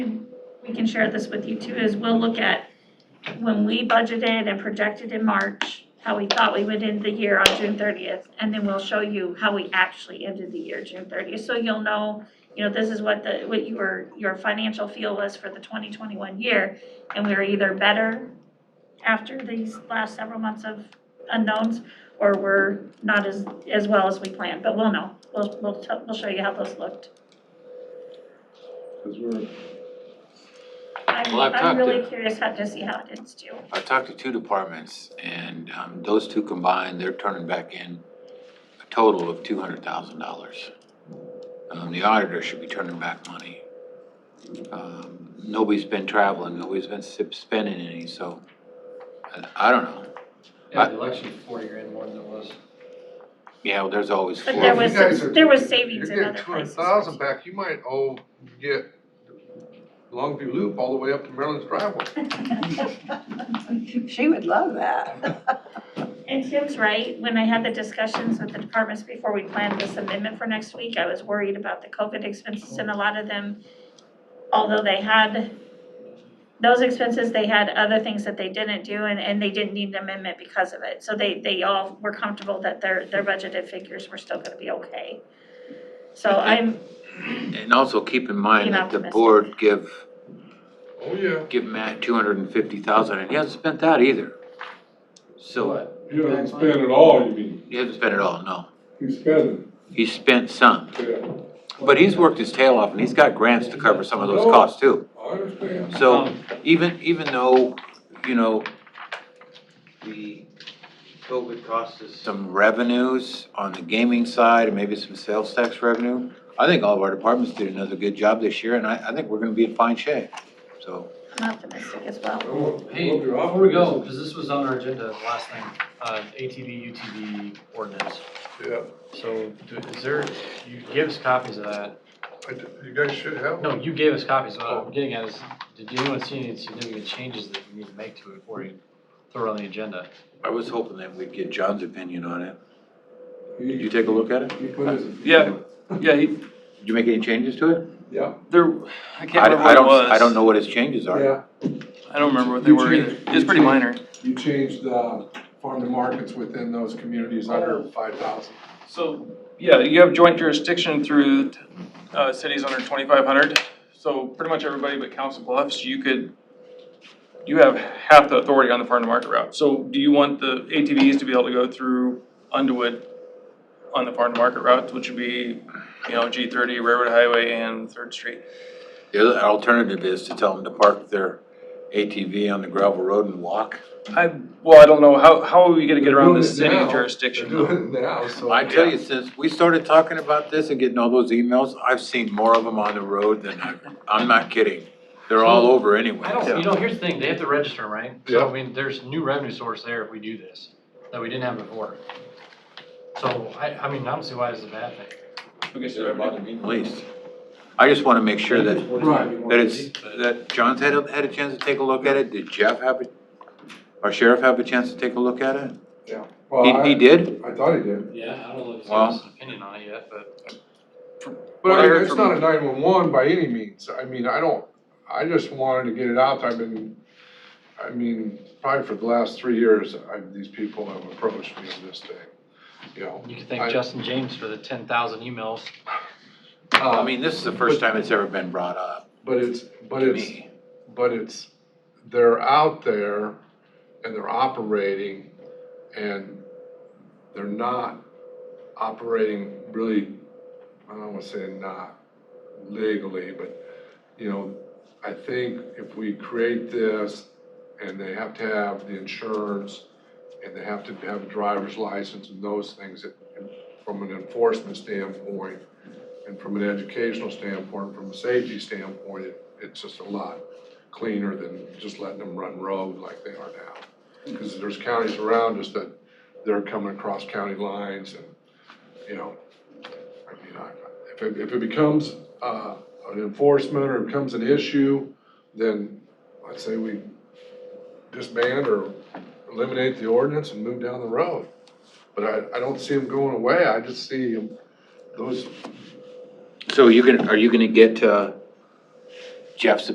we can share this with you too, is we'll look at when we budgeted and projected in March, how we thought we would end the year on June thirtieth, and then we'll show you how we actually ended the year, June thirtieth. So you'll know, you know, this is what the, what your, your financial feel was for the twenty twenty-one year. And we were either better after these last several months of unknowns, or we're not as, as well as we planned, but we'll know. We'll, we'll, tell- we'll show you how those looked. Because we're, I'm, Well, I've I'm talked to- really curious how to see how it ends too. I talked to two departments and um, those two combined, they're turning back in a total of two hundred thousand dollars. Um, the auditor should be turning back money. Um, nobody's been traveling, nobody's been sip- spending any, so I, I don't know. Yeah, the election was forty grand more than it was. Yeah, well, there's always But four- there Well, was, you guys are- there was savings in You're other getting two hundred places. thousand back, you might owe, get Longview Loop all the way up to Maryland's driveway. She would love that. And Tim's right, when I had the discussions with the departments before we planned this amendment for next week, I was worried about the COVID expenses and a lot of them, although they had those expenses, they had other things that they didn't do and, and they didn't need an amendment because of it. So they, they all were comfortable that their, their budgeted figures were still gonna be okay. So I'm, And also keep in mind Being that the optimistic. board give, Oh, yeah. give Matt two hundred and fifty thousand and he hasn't spent that either. So uh, What? You haven't spent it all, you mean? he hasn't spent it all, no. You spent He spent some. it, yeah. But he's worked his tail off and he's got grants to cover some of those costs too. I understand. So Um, even, even though, you know, the COVID cost us some revenues on the gaming side and maybe some sales tax revenue, I think all of our departments did another good job this year and I, I think we're gonna be in fine shape, so. I'm optimistic as well. Hey, before we go, because this was on our agenda last night, uh, ATV, UTV ordinance. Yeah, So do- is there, you gave us copies of that. I d you guys should have. No, one. you gave us copies. What I'm getting at is, did anyone see any significant changes that we need to make to it before we throw it on the agenda? I was hoping that we'd get John's opinion on it. Did you take a look at it? He put his- Yeah. Yeah, he, Did you make any changes to it? Yeah. there, I I can't don't, I remember what it was. don't, I don't know what his changes are. Yeah, I don't remember what they were either. It's pretty minor. you changed the farm to markets within those communities under five thousand. So, yeah, you have joint jurisdiction through, uh, cities under twenty-five hundred. So pretty much everybody but Council Bluffs, you could, you have half the authority on the farm to market route. So do you want the ATVs to be able to go through Underwood on the farm to market route, which would be, you know, G thirty, Railroad Highway and Third Street? The other alternative is to tell them to park their ATV on the gravel road and walk. I, well, I don't know, how, how are we gonna get around this They're doing it city now. jurisdiction? They're doing it now, so. I tell you, since we started talking about this and getting all those emails, I've seen more of them on the road than I, I'm not kidding. They're all over anyway. I don't, you know, here's the thing, they have to register, 'em, right? So, I mean, there's new revenue source there if we do this, that we didn't have before. So, I, I mean, I don't see why it's a bad thing. Okay, so They're about everybody- to be released. I just wanna make sure that, Right. that it's, that John's had, a- had a chance to take a look at it. Did Jeff have, a our sheriff have a chance to take a look at it? Well, He, he I, did? I thought he did. Yeah, I don't know if it's given us an opinion on it yet, but. But I Well, I mean, heard it's from- not a nine-one-one by any means, I mean, I don't, I just wanted to get it out, I've been, I mean, probably for the last three years, I, these people have approached me on this thing, you know. You can I- thank Justin James for the ten thousand emails. Uh, I mean, this is the first time it's ever been brought up But it's, but to it's. me. but it's, they're out there and they're operating and they're not operating really, I don't wanna say not legally, but, you know, I think if we create this and they have to have the insurance and they have to have a driver's license and those things, it- from an enforcement standpoint and from an educational standpoint, from a safety standpoint, it, it's just a lot cleaner than just letting them run rogue like they are now. Because there's counties around us that they're coming across county lines and, you know, I mean, I, if it, if it becomes, uh, an enforcement or becomes an issue, then I'd say we disband or eliminate the ordinance and move down the road. But I, I don't see them going away, I just see 'em- those So you gonna, are you gonna get, uh, Jeff's